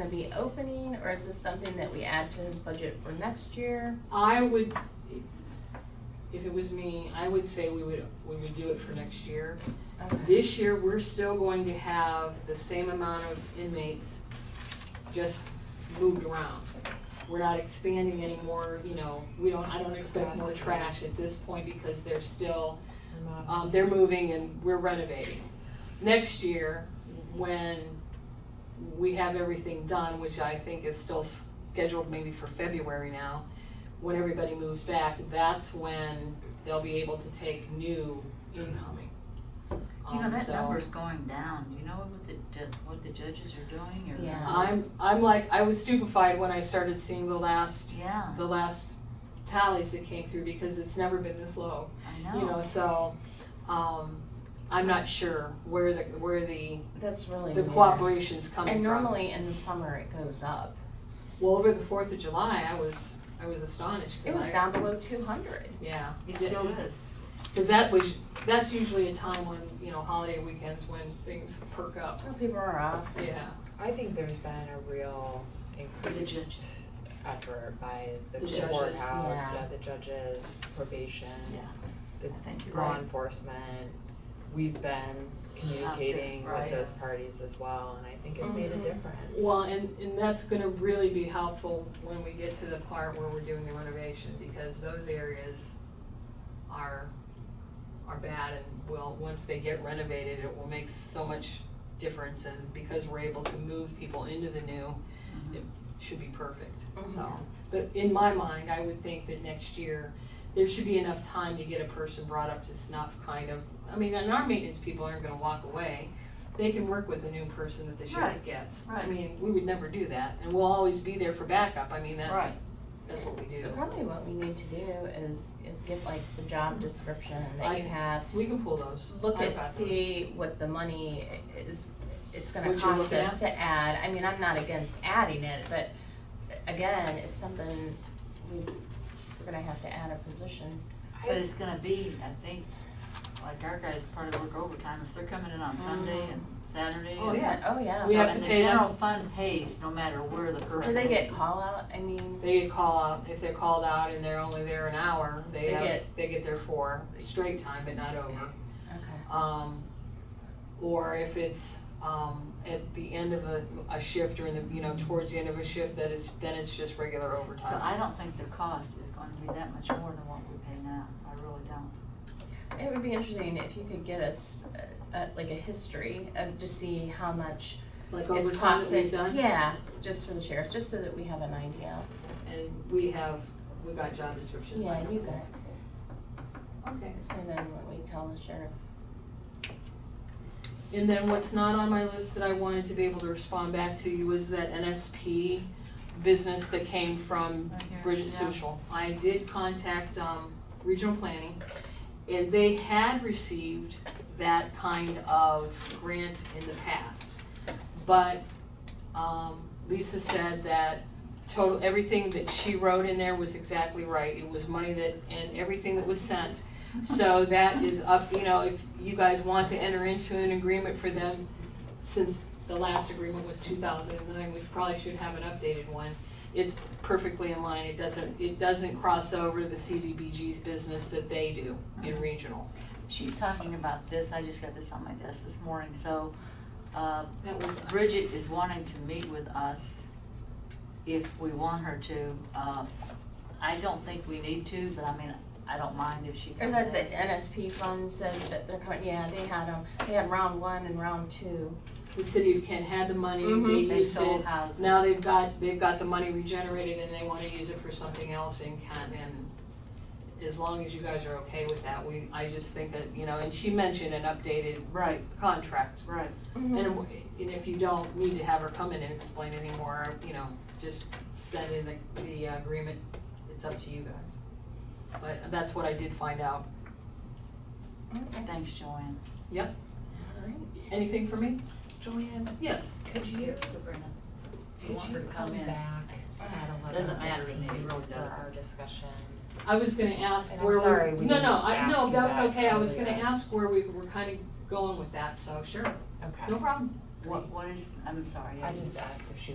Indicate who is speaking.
Speaker 1: be opening, or is this something that we add to his budget for next year?
Speaker 2: I would, if it was me, I would say we would, we would do it for next year.
Speaker 1: Okay.
Speaker 2: This year, we're still going to have the same amount of inmates, just moved around. We're not expanding anymore, you know, we don't, I don't expect more trash at this point because they're still, um, they're moving and we're renovating. Next year, when we have everything done, which I think is still scheduled maybe for February now, when everybody moves back, that's when they'll be able to take new incoming.
Speaker 3: You know,
Speaker 2: Um,
Speaker 3: that
Speaker 2: so-
Speaker 3: number's going down, do you know what the, ju- what the judges are doing, or?
Speaker 1: Yeah.
Speaker 2: I'm, I'm like, I was stupefied when I started seeing the last,
Speaker 3: Yeah,
Speaker 2: the last tallies that came through because it's never been this low.
Speaker 3: I
Speaker 2: You know,
Speaker 3: know,
Speaker 2: so, um, I'm not sure where the, where the,
Speaker 1: That's really
Speaker 2: the
Speaker 1: weird.
Speaker 2: cooperation's coming
Speaker 1: And
Speaker 2: from.
Speaker 1: normally in the summer it goes up.
Speaker 2: Well, over the Fourth of July, I was, I was astonished. 'cause
Speaker 1: It was
Speaker 2: I-
Speaker 1: down below two hundred.
Speaker 2: Yeah.
Speaker 3: it still is.
Speaker 2: Cause that was, that's usually a time when, you know, holiday weekends when things perk up,
Speaker 1: People are off.
Speaker 2: yeah.
Speaker 4: I think there's been a real increased
Speaker 3: judges.
Speaker 4: effort by
Speaker 2: The
Speaker 4: the
Speaker 2: judges,
Speaker 4: courthouse,
Speaker 1: yeah.
Speaker 4: uh, the judges, probation,
Speaker 3: I think you're
Speaker 4: law
Speaker 3: right.
Speaker 4: enforcement. We've been communicating
Speaker 3: right. Mm-hmm.
Speaker 4: with those parties as well, and I think it's made a
Speaker 1: Mhm.
Speaker 4: difference.
Speaker 2: Well, and, and that's gonna really be helpful when we get to the part where we're doing the renovation, because those areas are, are bad and will, once they get renovated, it will make so much difference, and because we're able to move people into the new, it should be perfect,
Speaker 1: Mm-hmm.
Speaker 2: so. But in my mind, I would think that next year, there should be enough time to get a person brought up to snuff, kind of, I mean, and our maintenance people aren't gonna walk away. They can work with a new person that the sheriff
Speaker 3: Right.
Speaker 2: gets. I
Speaker 3: Right.
Speaker 2: mean, we would never do that, and we'll always be there for backup, I mean, that's,
Speaker 3: Right.
Speaker 2: that's what we do.
Speaker 1: So probably what we need to do is, is get like the job description
Speaker 2: I-
Speaker 1: that you have.
Speaker 2: We can pull those.
Speaker 1: Look
Speaker 2: I've got
Speaker 1: at,
Speaker 2: those.
Speaker 1: see what the money is, it's gonna
Speaker 2: What you're
Speaker 1: cost
Speaker 2: looking
Speaker 1: us
Speaker 2: at?
Speaker 1: to add. I mean, I'm not against adding it, but again, it's something we, we're gonna have to add a position.
Speaker 3: But it's gonna be, I think, like our guys probably work overtime, if they're coming in on Sunday and Saturday.
Speaker 2: Oh,
Speaker 3: and-
Speaker 2: yeah.
Speaker 1: Oh, yeah.
Speaker 2: We
Speaker 3: So,
Speaker 2: have
Speaker 3: and
Speaker 2: to
Speaker 3: the
Speaker 2: pay them.
Speaker 3: general fund pays no matter where the
Speaker 1: Do
Speaker 3: person is.
Speaker 1: they get call out? I mean,
Speaker 2: They get call out, if they're called out and they're only there an hour, they
Speaker 1: They
Speaker 2: have,
Speaker 1: get-
Speaker 2: they get their four, straight time, but not over.
Speaker 1: okay.
Speaker 2: um, or if it's, um, at the end of a, a shift or in the, you know, towards the end of a shift, that it's, then it's just regular
Speaker 3: So
Speaker 2: overtime.
Speaker 3: I don't think the cost is gonna be that much more than what we pay now, I really don't.
Speaker 1: It would be interesting if you could get us uh, uh, like a history of to see how much
Speaker 2: Like
Speaker 1: it's
Speaker 2: overtime that
Speaker 1: costing.
Speaker 2: we've done,
Speaker 1: Yeah, just for the sheriff, just so that we have an idea.
Speaker 2: and we have, we got job descriptions. I
Speaker 1: Yeah,
Speaker 2: don't
Speaker 1: you
Speaker 2: know.
Speaker 1: got.
Speaker 2: Okay.
Speaker 1: So then when we tell the sheriff.
Speaker 2: And then what's not on my list that I wanted to be able to respond back to you was that NSP business that came from
Speaker 3: Right here,
Speaker 2: Bridget
Speaker 3: yeah.
Speaker 2: Sushel. I did contact, um, regional planning, and they had received that kind of grant in the past. But, um, Lisa said that total, everything that she wrote in there was exactly right. It was money that, and everything that was sent so that is up, you know, if you guys want to enter into an agreement for them, since the last agreement was two thousand and nine, we probably should have an updated one. It's perfectly in line, it doesn't, it doesn't cross over to the CDBG's business that they do in regional.
Speaker 3: She's talking about this, I just got this on my desk this morning, so, uh,
Speaker 2: That was,
Speaker 3: Bridget is wanting to meet with us if we want her to. Uh, I don't think we need to, but I mean, I don't mind if she
Speaker 1: Or
Speaker 3: comes
Speaker 1: is that the
Speaker 3: in.
Speaker 1: NSP funds that, that they're coming, yeah, they had them, they had round one and round two.
Speaker 2: the city of Kent had the money, they
Speaker 3: They
Speaker 2: used
Speaker 3: sold
Speaker 2: it,
Speaker 3: houses.
Speaker 2: now they've got, they've got the money regenerated and they wanna use it for something else in Kent and as long as you guys are okay with that, we, I just think that, you know, and she mentioned an updated
Speaker 3: Right,
Speaker 2: contract.
Speaker 3: right.
Speaker 1: Mm-hmm.
Speaker 2: And, w- and if you don't need to have her come in and explain anymore, you know, just send in the, the uh, agreement, it's up to you guys. But that's what I did find out.
Speaker 1: Okay,
Speaker 3: Thanks, Joanne.
Speaker 1: all right.
Speaker 2: Anything for me?
Speaker 4: Joanne,
Speaker 2: Yes.
Speaker 4: could you,
Speaker 3: Sabrina. If you
Speaker 4: could
Speaker 3: want her
Speaker 4: you
Speaker 3: to come
Speaker 4: come
Speaker 3: in.
Speaker 4: back at eleven
Speaker 3: Doesn't matter to
Speaker 4: thirty
Speaker 3: me, it really
Speaker 4: for
Speaker 3: doesn't.
Speaker 4: our discussion?
Speaker 2: I was gonna ask
Speaker 4: And I'm
Speaker 2: where we.
Speaker 4: sorry we
Speaker 2: No,
Speaker 4: didn't
Speaker 2: no, I,
Speaker 4: ask
Speaker 2: no,
Speaker 4: you
Speaker 2: that was
Speaker 4: that
Speaker 2: okay, I was gonna
Speaker 4: earlier.
Speaker 2: ask where we were kinda going with that, so sure,
Speaker 4: Okay.
Speaker 2: no problem.
Speaker 3: What, what is, I'm sorry.
Speaker 4: I just asked if she